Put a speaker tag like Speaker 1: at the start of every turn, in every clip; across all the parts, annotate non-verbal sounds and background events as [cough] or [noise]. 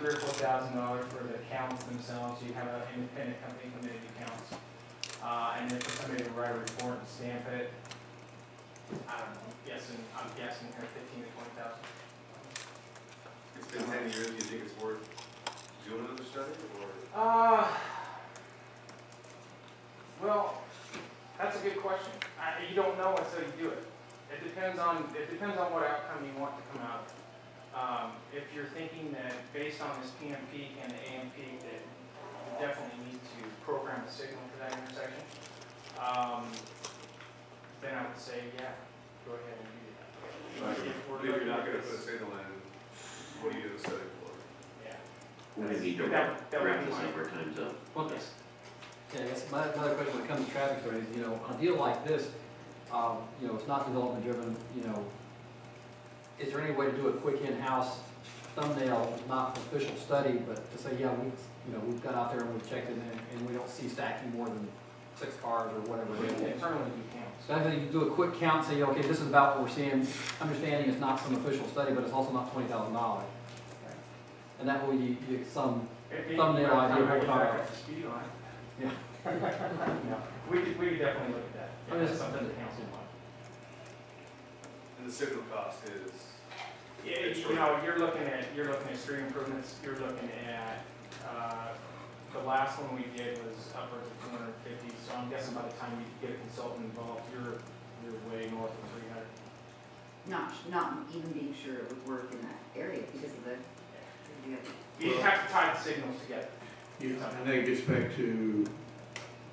Speaker 1: three or four thousand dollars for the accounts themselves, you have an independent company come in and accounts. Uh, and then for somebody to write a report and stamp it, I don't know, guessing, I'm guessing here fifteen to twenty thousand.
Speaker 2: It's been ten years, do you think it's worth doing another study, or?
Speaker 1: Uh, well, that's a good question. I, you don't know until you do it. It depends on, it depends on what outcome you want to come out of. Um, if you're thinking that based on this PMP and the AMP, that you definitely need to program a signal for that intersection, um, then I would say, yeah, go ahead and do that. If we're
Speaker 2: If you're not
Speaker 1: looking at
Speaker 2: gonna put a
Speaker 1: this-
Speaker 2: signal in, what are you gonna study for?
Speaker 1: Yeah.
Speaker 3: We're gonna need to
Speaker 1: That-
Speaker 3: wrap
Speaker 1: that would
Speaker 3: wrap
Speaker 1: be
Speaker 3: this
Speaker 1: my-
Speaker 3: up, our time's up.
Speaker 4: Okay. Yeah, I guess my, my other question when it comes to traffic studies, you know, on a deal like this, um, you know, it's not development driven, you know, is there any way to do a quick in-house thumbnail, not official study, but to say, yeah, we, you know, we've got out there and we've checked it and, and we don't see stacking more than six cars or whatever it is.
Speaker 1: Internally, you can't.
Speaker 4: So I think you do a quick count, say, okay, this is about what we're seeing, understanding it's not some official study, but it's also not twenty thousand dollars. And that way you, you get some, Thumbnail idea of what
Speaker 1: Back
Speaker 4: I-
Speaker 1: up the speed line.
Speaker 4: Yeah.
Speaker 1: [laughs] Yeah. We could, we could definitely look at that.
Speaker 4: I mean,
Speaker 1: That's
Speaker 4: it's-
Speaker 1: something the council wants.
Speaker 2: And the signal cost is,
Speaker 1: Yeah, you know, you're looking at, you're looking at street improvements, you're looking at, uh, the last one we did was upwards of two hundred and fifty, so I'm guessing by the time you get a consultant involved, you're, you're way north of three hundred.
Speaker 5: not, not even being sure it would work in that area because of the, yeah.
Speaker 1: You have to tie the signals together.
Speaker 6: Yeah, and that gets back to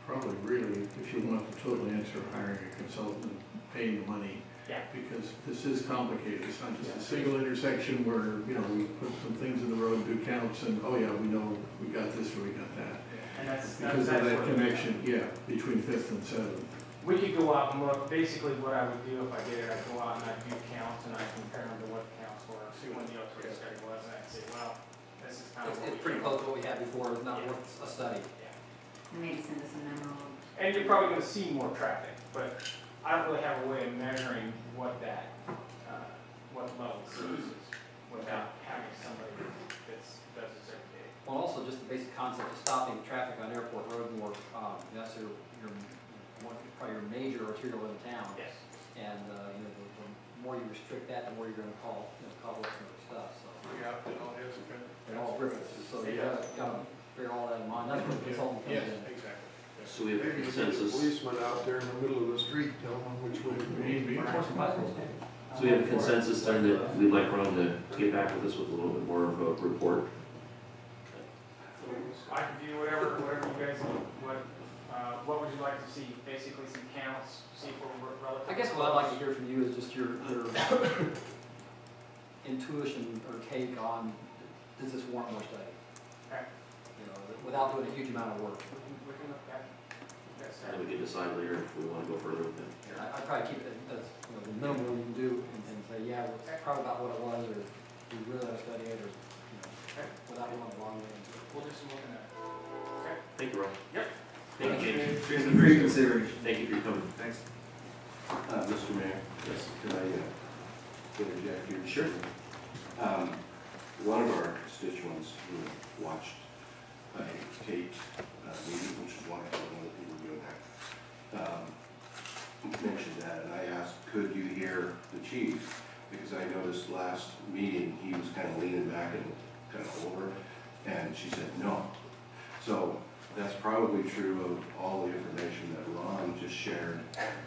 Speaker 6: probably really, if you want the total answer, hiring a consultant, paying the money.
Speaker 1: Yeah.
Speaker 6: Because this is complicated, it's not just a single intersection where, you know, we put some things in the road, do counts, and, oh yeah, we know, we got this or we got that.
Speaker 1: And that's, that's.
Speaker 6: Because of
Speaker 1: that's
Speaker 6: that
Speaker 1: what-
Speaker 6: connection, yeah, between Fifth and Seventh.
Speaker 1: We could go out and look, basically what I would do if I did it, I'd go out and I'd do counts and I'd compare them to what the counts were, see when the upgrade study was, and I'd say, well, this is kind of
Speaker 4: it's,
Speaker 1: what we.
Speaker 4: it's pretty
Speaker 1: came
Speaker 4: close
Speaker 1: up
Speaker 4: to what we had before, it's not worth a study.
Speaker 1: with." Yeah.
Speaker 5: And maybe send us a memo. of-
Speaker 1: And you're probably gonna see more traffic, but I don't really have a way of measuring what that, uh, what level of service is without having somebody that's, does this every day.
Speaker 4: Well, also just the basic concept of stopping traffic on Airport Road more, um, that's your, your, one, probably your major arterial in town.
Speaker 1: Yes.
Speaker 4: And, uh, you know, the, the more you restrict that, the more you're gonna call, you know, cobble up some other stuff, so.
Speaker 6: Yeah,
Speaker 4: They're all ripples, so you gotta, gotta bear all that in mind, that's where the consultant comes in.
Speaker 6: exactly.
Speaker 3: So we have a
Speaker 7: Maybe you get a
Speaker 3: consensus,
Speaker 7: policeman out there in the middle of the street, tell them which way to go.
Speaker 6: Maybe.
Speaker 4: Of course, the bicycle's there.
Speaker 3: so we have a consensus then that we'd like Ron to get back with us with a little bit more of a report.
Speaker 1: I can do whatever, whatever you guys, want. what, uh, what would you like to see, basically some counts, see if we're relative.
Speaker 4: I guess what I'd like to hear from you is just your, your intuition or take on, does this warrant more study?
Speaker 1: Okay.
Speaker 4: You know, without doing a huge amount of work.
Speaker 1: We can, we can look back. That's
Speaker 3: And we can decide later if we wanna go further with that.
Speaker 4: I, I'd probably keep it as, as, you know, the minimum you can do and, and say, yeah, well, it's probably about what it was, or we really ought to study it, or, you know, without going long way.
Speaker 1: We'll do some looking at it.
Speaker 3: Thank you, Ron.
Speaker 1: Yep.
Speaker 3: Thank you, James.
Speaker 2: Jason, appreciate it.
Speaker 3: Thank you for your comment.
Speaker 2: Thanks.
Speaker 8: Uh, Mr. Mayor,
Speaker 3: Yes.
Speaker 8: could I uh, interject here?
Speaker 3: Sure.
Speaker 8: Um, One of our constituents who watched a taped uh, meeting, which is why I don't know that people were doing that, um, mentioned that, and I asked, could you hear the chief? Because I noticed last meeting, he was kind of leaning back and kind of over, and she said, no. So that's probably true of all the information that Ron just shared.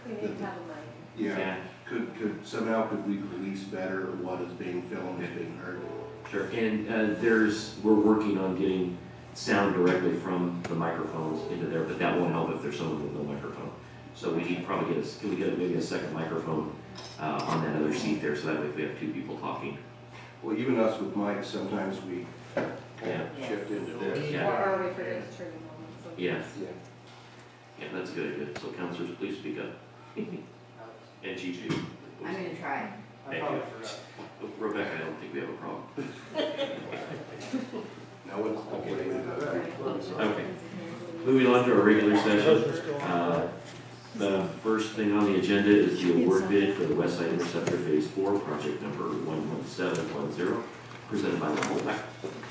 Speaker 9: We need to have a mic.
Speaker 8: Yeah, could, could, somehow could we release better what is being filmed, is being heard?
Speaker 3: Sure, and uh, there's, we're working on getting sound directly from the microphones into there, but that won't help if there's someone with no microphone. So we need probably get a, can we get maybe a second microphone uh, on that other seat there, so that way if we have two people talking.
Speaker 8: Well, even us with mics, sometimes we kind of
Speaker 9: Yeah.
Speaker 8: shift into this.
Speaker 9: Or
Speaker 3: Yeah.
Speaker 9: are we for the trigger moment? so-
Speaker 3: Yeah,
Speaker 8: Yeah.
Speaker 3: yeah, that's a good idea. So counselors, please speak up. And Gigi.
Speaker 5: I'm gonna try.
Speaker 1: I
Speaker 3: Thank
Speaker 1: probably
Speaker 3: you.
Speaker 1: forgot.
Speaker 3: Oh, Rebecca, I don't think we have a problem.
Speaker 8: No one's complaining about that.
Speaker 3: Okay. Moving on to our regular session. Uh, The first thing on the agenda is the award bid for the West Side Interceptor Phase Four, project number one one seven one zero, presented by Ron Holback.